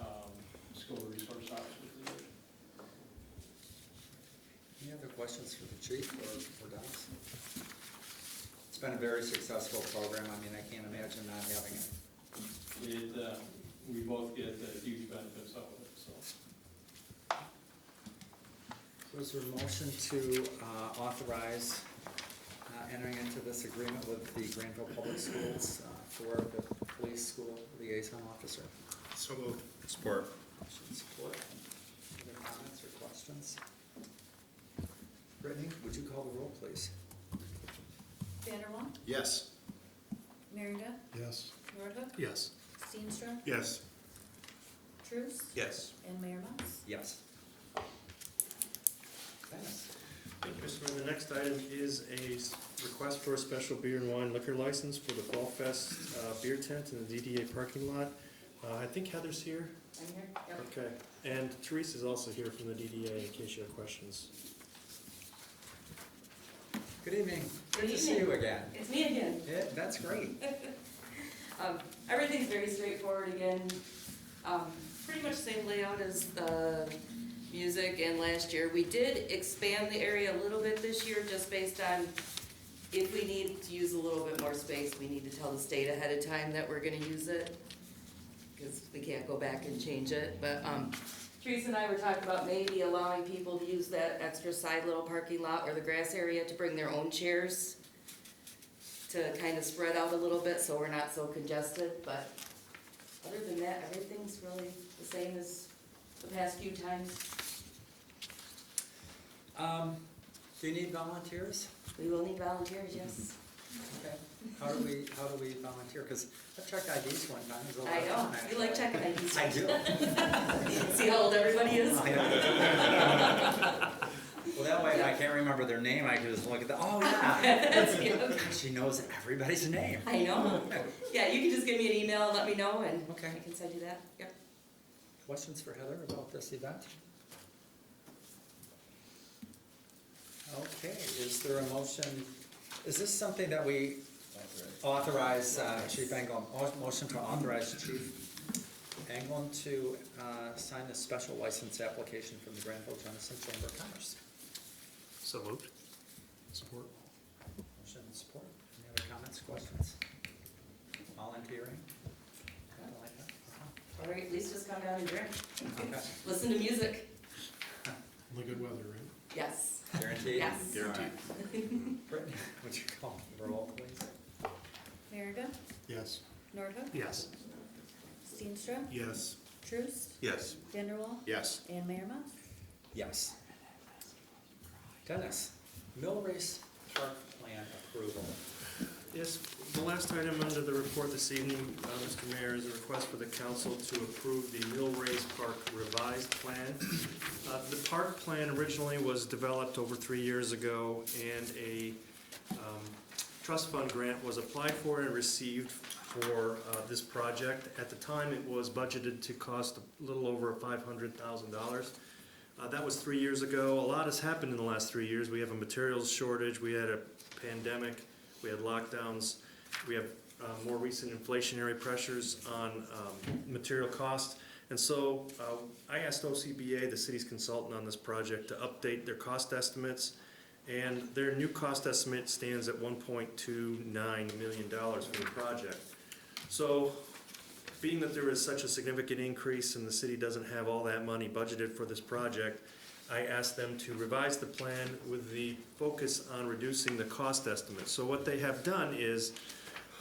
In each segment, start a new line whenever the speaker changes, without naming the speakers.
um,
questions for the chief or for Dennis? It's been a very successful program. I mean, I can't imagine not having it.
It, uh, we both get uh, huge benefits out of it, so.
Was there a motion to uh, authorize uh, entering into this agreement with the Granville Public Schools uh, for the police school liaison officer?
So moved. Support.
Motion support. Other comments or questions? Brittany, would you call the roll, please?
Vanderwaal,
Yes.
Merringa,
Yes.
Nordhook,
Yes.
Steenstra,
Yes.
Truce,
Yes.
and Mayor Mas.
Yes. Dennis?
Thank you, Mr. Mayor. The next item is a s- request for a special beer and wine liquor license for the Fall Fest uh, beer tent in the DDA parking lot. Uh, I think Heather's here.
I'm here, yep.
Okay. And Teresa's also here from the DDA in case you have questions.
Good evening. Good
Good
to see you
evening.
again.
It's me again.
Yeah, that's great.
Um, everything's very straightforward again. Um, pretty much same layout as the music and last year. We did expand the area a little bit this year just based on if we need to use a little bit more space, we need to tell the state ahead of time that we're gonna use it. Cause we can't go back and change it, but, um, Teresa and I were talking about maybe allowing people to use that extra side little parking lot or the grass area to bring their own chairs to kind of spread out a little bit so we're not so congested, but other than that, everything's really the same as the past few times.
Um, Do you need volunteers?
We will need volunteers, yes.
Okay. How do we, how do we volunteer? Because I've checked IDs one time, it's a lot
I
of
know,
fun, actually.
you like checking IDs.
Mm-hmm. I do.
See how old everybody is?
I know. Well, that way, if I can't remember their name, I can just look at the, oh, yeah.
That's cute.
She knows everybody's name.
I know. Yeah, you can just give me an email, and let me know, and
Okay.
I can send you that, yep.
Questions for Heather about this event? Okay, is there a motion, is this something that we authorize uh, Chief Anglin, au- motion to authorize Chief Anglin to uh, sign a special license application from the Granville Johnson Chamber of Commerce?
So moved. Support.
Motion and support. Any other comments, questions? Volunteering? Nothing like that? Uh-huh.
All right, at least just come down and drink,
Okay.
listen to music,
In the good weather, right?
yes,
Guaranteed?
yes.
Guaranteed.
Brittany, would you call the roll, please?
Merringa,
Yes.
Nordhook,
Yes.
Steenstra,
Yes.
Truce,
Yes.
Vanderwaal,
Yes.
and Mayor Mas.
Yes. Dennis, mill race park plan approval.
Yes, the last item under the report this evening, uh, Mr. Mayor, is a request for the council to approve the Mill Race Park revised plan. Uh, The park plan originally was developed over three years ago, and a um, trust fund grant was applied for and received for uh, this project. At the time, it was budgeted to cost a little over $500,000. Uh, That was three years ago. A lot has happened in the last three years. We have a materials shortage, we had a pandemic, we had lockdowns, we have uh, more recent inflationary pressures on um, material costs. And so uh, I asked OCBA, the city's consultant on this project, to update their cost estimates. And their new cost estimate stands at $1.29 million for the project. So being that there is such a significant increase and the city doesn't have all that money budgeted for this project, I asked them to revise the plan with the focus on reducing the cost estimate. So what they have done is,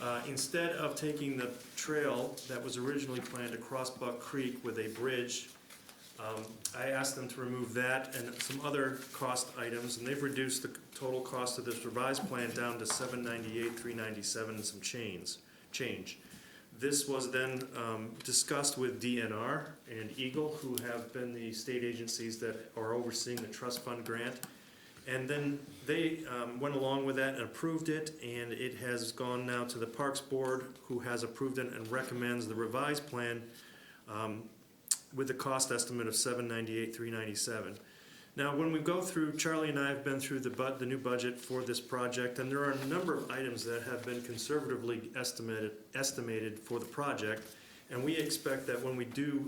uh, instead of taking the trail that was originally planned across Buck Creek with a bridge, um, I asked them to remove that and some other cost items, and they've reduced the total cost of this revised plan down to seven ninety-eight, three ninety-seven, and some chains, change. This was then um, discussed with DNR and Eagle, who have been the state agencies that are overseeing the trust fund grant. And then they um, went along with that and approved it, and it has gone now to the Parks Board, who has approved it and recommends the revised plan um, with the cost estimate of seven ninety-eight, three ninety-seven. Now, when we go through, Charlie and I have been through the bud, the new budget for this project, and there are a number of items that have been conservatively estimated, estimated for the project. And we expect that when we do